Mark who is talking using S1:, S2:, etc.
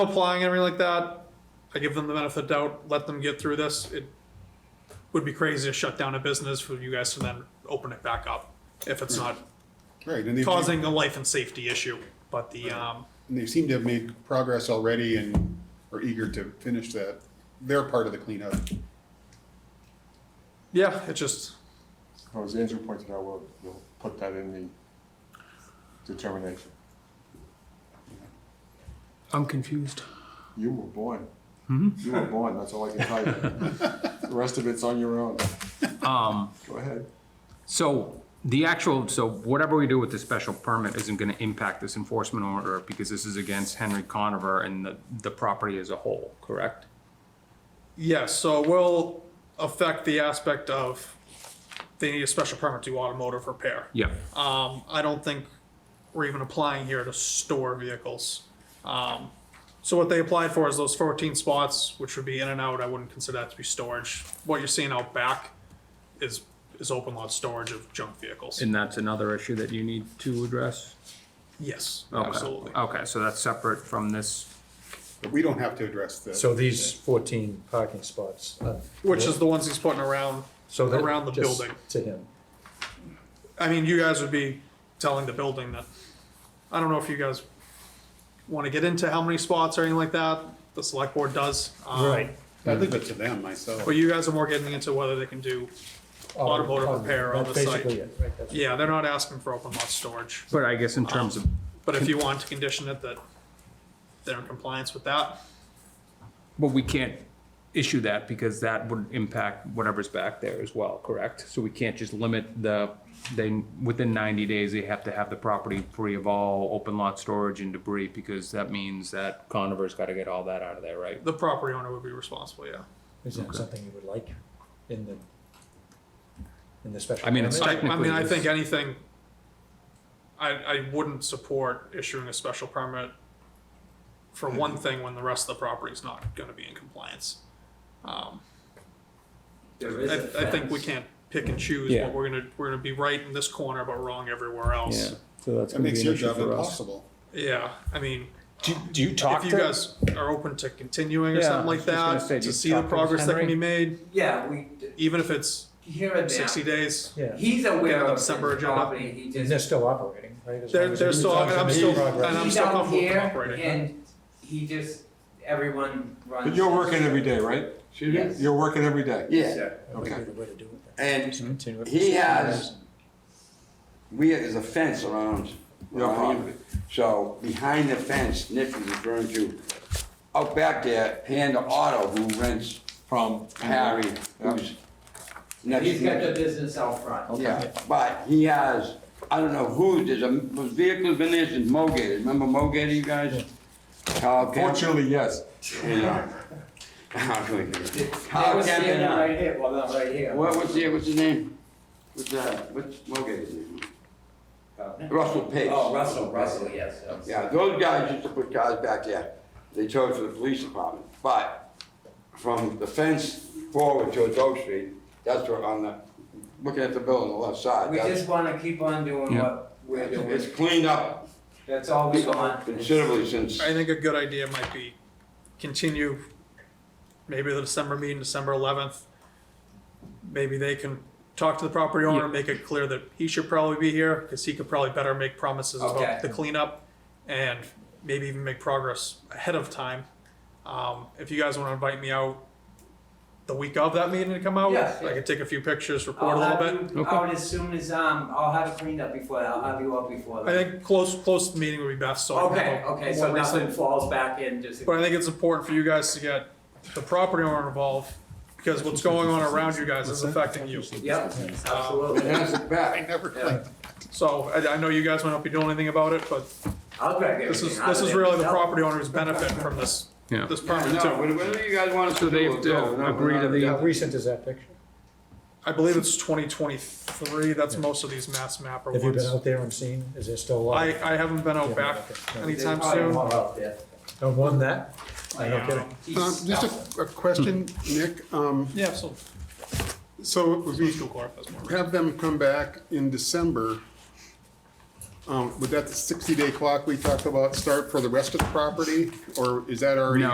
S1: applying and everything like that, I give them the benefit of the doubt, let them get through this. It would be crazy to shut down a business for you guys to then open it back up if it's not
S2: Right, and they've,
S1: causing a life and safety issue. But the, um,
S2: and they seem to have made progress already and are eager to finish that, their part of the cleanup.
S1: yeah, it just,
S3: Well, As Andrew pointed out, we'll, we'll put that in the determination.
S4: I'm confused.
S3: You were born. You were born, that's all I can tell you. The rest of it's on your own. Go ahead.
S5: So the actual, so whatever we do with the special permit isn't gonna impact this enforcement order because this is against Henry Conover and the, the property as a whole, correct?
S1: yeah, so it will affect the aspect of they need a special permit to do automotive repair.
S5: Yeah,
S1: Um, I don't think we're even applying here to store vehicles. Um, so what they applied for is those fourteen spots, which would be in and out. I wouldn't consider that to be storage. What you're seeing out back is, is open lot storage of junk vehicles.
S5: and that's another issue that you need to address?
S1: Yes,
S5: Okay.
S1: absolutely.
S4: Uh,
S5: Okay, so that's separate from this,
S2: But we don't have to address that.
S4: So these fourteen parking spots. uh,
S1: Which is the ones he's putting around,
S4: so that-
S1: around the
S4: just
S1: building.
S4: To him.
S1: I mean, you guys would be telling the building that, I don't know if you guys want to get into how many spots or anything like that. The select board does. um,
S2: I leave it to them myself.
S1: But you guys are more getting into whether they can do automotive repair on
S4: Oh, That's
S1: the site.
S4: basically it, right, that's-
S1: Yeah, they're not asking for open lot storage,
S5: but I guess in terms of,
S1: but if you want to condition it that they're in compliance with that,
S5: but we can't issue that because that would impact whatever's back there as well, correct? So we can't just limit the, they, within ninety days, they have to have the property free of all open lot storage and debris because that means that Conover's gotta get all that out of there, right?
S1: the property owner would be responsible, yeah.
S4: Is that something you would like in the, in the special?
S5: I mean, it's
S1: I,
S4: permit?
S1: I mean, I
S5: Technically,
S1: think
S5: it's-
S1: anything, I, I wouldn't support issuing a special permit for one
S4: Mm-hmm.
S1: thing when the rest of the property's not gonna be in compliance.
S6: There
S1: I,
S6: is a
S1: I think we
S6: fence.
S1: can't pick and choose
S5: Yeah.
S1: what we're gonna, we're gonna be right in this corner but wrong everywhere else.
S5: so that's
S2: That makes your job impossible.
S1: Yeah, I mean.
S4: Do, do you
S1: if you guys are open to continuing or
S5: Yeah,
S1: something
S5: I
S1: like
S5: was just gonna
S1: that,
S5: say, do
S1: to
S5: you
S1: see the
S5: talk to
S1: progress that can be
S5: Henry?
S1: made,
S6: Yeah, we, d-
S1: even if it's
S6: here and there.
S1: sixty days.
S4: Yeah,
S6: He's aware of his
S1: December agenda.
S6: property, he
S4: and they're
S6: just,
S4: still operating, right? as
S1: They're-
S4: long as
S1: they're
S4: you-
S1: still-
S4: as long as
S1: I'm
S4: you
S1: still-
S4: make progress.
S1: and I'm
S6: he's
S1: still
S6: out
S1: comfortable with
S6: here
S1: cooperating.
S6: and he just, everyone runs.
S3: But you're working every day, right?
S6: Yes.
S3: You're working every day?
S7: Yeah,
S4: That would
S3: Okay.
S4: be the way to do it. then.
S7: and
S4: Continue it.
S7: He has- we, there's a fence around.
S3: Your
S7: around
S3: property.
S7: So behind the fence, Nick is referring to, out back there, Panda Auto, who rents
S3: From?
S7: Harry, who's next
S6: Mm-hmm. He's
S7: to
S6: got the
S7: me.
S6: business out front.
S7: Yeah, but he has, I don't know who, there's a, was vehicles been there since Mogate, remember Mogate, you guys? Carl Kemp.
S3: Fortunately, yes.
S7: Yeah.
S6: They
S7: Carl
S6: were
S7: Kemp
S6: standing
S7: and, uh,
S6: right here, well, not right here.
S7: what, what's the, what's his name? What's, uh, what's Mogate's name? Russell Pace.
S6: Oh, Russell, Russell, yes. yes.
S7: Yeah, those guys used to put cars back there. They towed to the police department. But from the fence forward towards Oak Street, that's where on the, looking at the building on the left side.
S6: We
S7: that's-
S6: just wanna keep on doing
S5: Yeah.
S6: what we're
S7: It's
S6: doing,
S7: cleaned up
S6: that's all we want.
S7: considerably since,
S1: I think a good idea might be continue maybe the December meeting, December eleventh. Maybe they can talk to the property owner,
S5: Yeah.
S1: make it clear that he should probably be here, cause he could probably better make promises
S6: Okay.
S1: about the cleanup and maybe even make progress ahead of time. Um, if you guys wanna invite me out the week of that meeting to come out,
S6: Yes,
S1: I
S6: yeah.
S1: could take a few pictures, report
S6: I'll
S1: a little bit.
S6: have you
S5: Okay.
S6: out as soon as, um, I'll have it cleaned up before, that. I'll have you up before
S1: I
S6: that.
S1: think close, close to the meeting would be best, so. I can
S6: Okay,
S1: have a
S6: okay,
S1: more
S6: so nothing
S1: recent-
S6: falls back in, just.
S1: But I think it's important for you guys to get the property owner involved, because what's going on around you guys is affecting you.
S6: Yep, absolutely.
S7: it has it
S2: I
S7: back.
S2: never
S6: Yeah.
S2: cleaned.
S1: So I, I know you guys might not be doing anything about it, but
S6: I'll drag
S1: this is,
S6: everything out
S1: this
S6: of
S1: is
S6: there
S1: really the
S6: myself.
S1: property owner's benefit from this,
S5: Yeah.
S1: this permit
S7: No,
S1: too.
S7: whatever you guys want us
S5: So
S7: to do.
S5: they
S7: we'll
S5: have to
S7: do it. No,
S5: agree to
S7: we're
S5: the-
S4: How
S7: not-
S4: recent is that picture?
S1: I believe it's twenty twenty-three, that's most of these mass mapper
S4: Have you been
S1: ones.
S4: out there and seen, is there still a lot?
S1: I, I haven't been out back anytime soon.
S4: Don't want that? No kidding.
S2: Um, Just a, a question, Nick. Um,
S1: Yeah, so,
S2: so if we
S1: school corp has more.
S2: have them come back in December, Um, would that sixty day clock we talked about start for the rest of the property, or is that already?
S5: No,